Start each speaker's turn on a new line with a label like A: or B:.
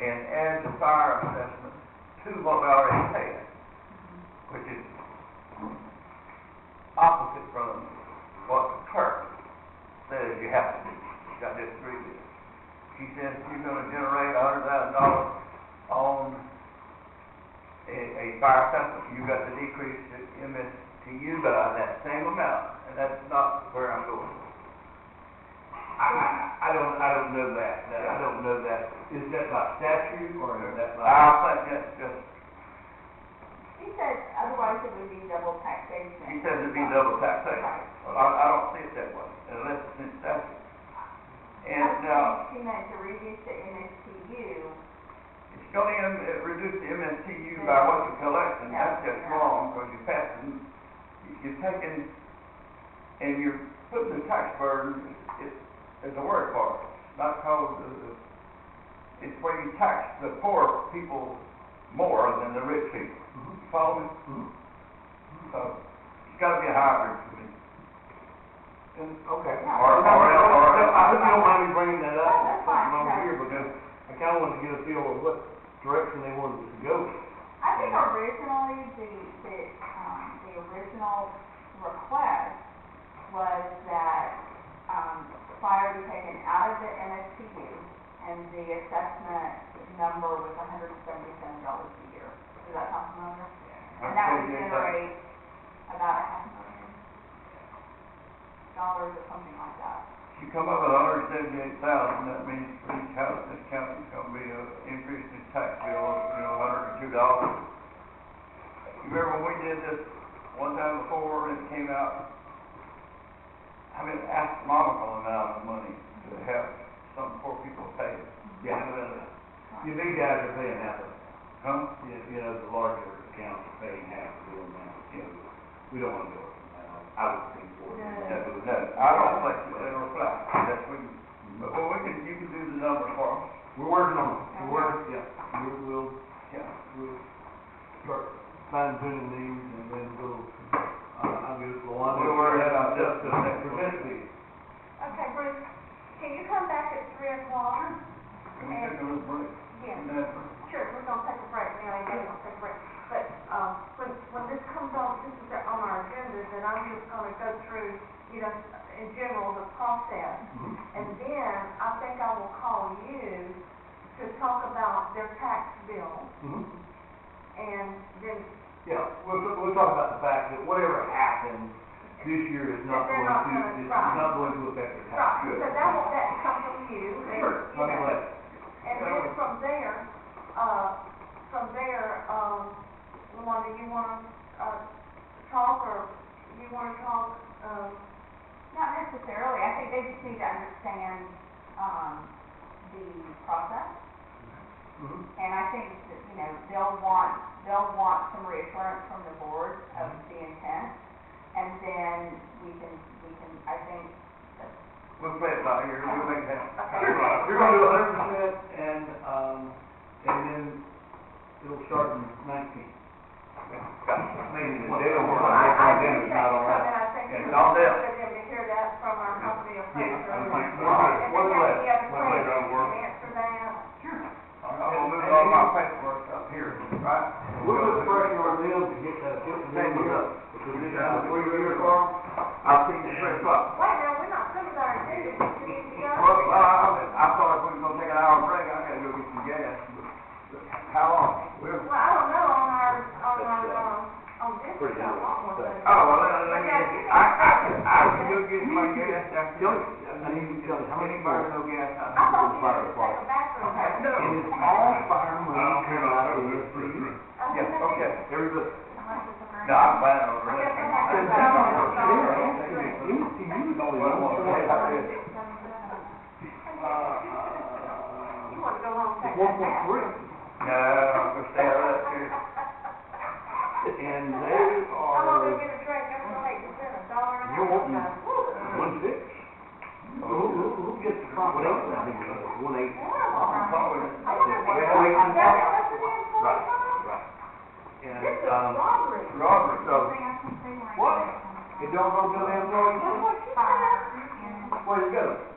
A: and add the fire assessment to what we already paid, which is opposite from what the clerk says you have to do. I disagree with it. She says you're gonna generate a hundred thousand dollars on a, a fire assessment, you got to decrease the MSTU by that same amount, and that's not where I'm going.
B: I, I- I don't, I don't know that, That- I don't know that. Is that by statute or is that by?
A: I think that's just,
C: He said, otherwise it would be double taxation.
A: he says it'd be double taxation.
C: Right.
A: Well, I, I don't see it that way, unless it's in statute. And, uh,
C: I think she meant to reduce the MSTU.
A: it's gonna em- uh, reduce the MSTU by what you collect, and that's just wrong, because you're passing, you're taking, and you're putting the tax burden, it's, it's a word for it, not called, uh, it's where you tax the poor people more than the rich people.
B: Mhm.
A: Follow me?
B: Mhm.
A: So, it's gotta be a hybrid for me.
B: And, okay.
C: No.
A: Or- or- or-
B: I hope you don't mind me bringing that up,
C: No, that's fine,
B: over
C: no.
B: here, because I kinda wanted to get a feel of what direction they wanted us to go.
C: I think originally, the, the, um, the original request was that, um, fire be taken out of the MSTU and the assessment number was hundred and seventy-seven dollars a year. Does that sound familiar? And that would generate about a half million dollars or something like that.
A: If you come up with hundred and seventy-eight thousand, that means for each house, this county's gonna be a increase in tax bill, of, you know, hundred and two dollars. You remember when we did this one time before, and it came out, I mean, astronomical amount of money to help some poor people pay.
B: Yeah, you big guys are paying half of it,
A: Huh?
B: you, you know, the larger accounts are paying half of the amount, you know, we don't wanna go up from that, I I would think for
C: No.
A: No, no, I don't think they reflect, that's when, but, well, we can, you can do the numbers for us,
B: We're working on it, we're working, yeah, we will,
A: yeah.
B: we'll start fine tuning these and then we'll, uh, I'll get Luana.
A: We'll worry about that.
B: Just the next present meeting.
D: Okay, Bruce, can you come back at three o'clock?
A: Can we take a little break?
D: Yes,
A: No.
D: sure, we're gonna take a break, we only need to take a break. But, um, when, when this comes on, this is on our agenda, then I'm just gonna go through, you know, in general, the process. And then I think I will call you to talk about their tax bill
B: Mhm.
D: and then.
B: Yeah, we'll, we'll talk about the fact that whatever happens this year is not
D: They're
B: going
D: not
B: to,
D: gonna
B: is
D: try.
B: not going to affect the tax.
D: Right, so that will, that comes from you. and,
B: Sure, I
D: you
B: mean,
D: know,
B: like,
D: And then from there, uh, from there, um, Luanda, you wanna, uh, talk or you wanna talk, um,
C: Not necessarily, I think they just need to understand, um, the process.
B: mhm.
C: And I think that, you know, they'll want, they'll want some reassurance from the board of
B: Mm-hmm.
C: the intent. And then we can, we can, I think,
A: We'll play it by ear, we'll make that.
B: You're right. You're gonna do a hundred percent and, um, and then it'll start in nineteen.
A: Maybe the deal
B: They don't
D: I,
A: was-
B: want
D: I
B: Then
D: think
B: it's
D: that's
B: not all right.
D: something I think
A: It's
D: it's
A: all
D: good
A: there.
D: for them to hear that from our company appraiser.
B: I'm
D: And
B: like,
D: if
B: all right, one
D: they have
B: less,
D: any other
B: one less.
D: questions, you can answer that.
A: I'm gonna move all my paperwork up here, right?
B: We'll put pressure on them to get that, get the
A: Thank
B: numbers
A: you.
B: up. Because it's out of three years long.
A: I'll see you three o'clock.
D: Wait, now, we're not through with our agenda, we need to
A: Well,
D: go.
A: I, I thought if we was gonna take an hour break, I gotta go get some gas, but how long?
D: Well, I don't know, on our, on our, um, on this,
B: uh, Pretty
D: I want one.
B: good.
A: Oh, well, I, I, I can, I can go get my gas after.
B: Don't, I need to tell you, how many
A: Anybody no
B: fire,
A: gas?
D: I
A: I-
D: thought you were gonna take a bathroom break.
A: No.
B: it is all fire money.
E: I don't care about
B: coming out
E: this,
B: of
E: this,
B: the-
E: this.
D: I
A: Yeah,
D: think that's-
A: okay.
B: Everybody.
A: No, I'm planning on
D: I guess
A: renting.
D: I have to- You want to go home and take
B: One
D: that
B: point
D: bath.
B: three,
A: No, I'm gonna stay out of that too.
B: and they
D: I'm gonna go
B: are
D: get a drink, I'm gonna make you spend a dollar and a half.
B: You're wanting-
D: Yeah,
B: one six. Who, who, who gets the front, what else, I think, uh, one eight.
D: I'm all right. I don't know what-
A: Yeah, we can
D: Is that
A: talk.
D: what it is for?
B: Right, right.
D: This
B: And,
D: is
B: um,
D: robbery.
A: Robert,
B: so,
C: What?
B: it don't go to them,
D: That's what she said.
B: where it goes.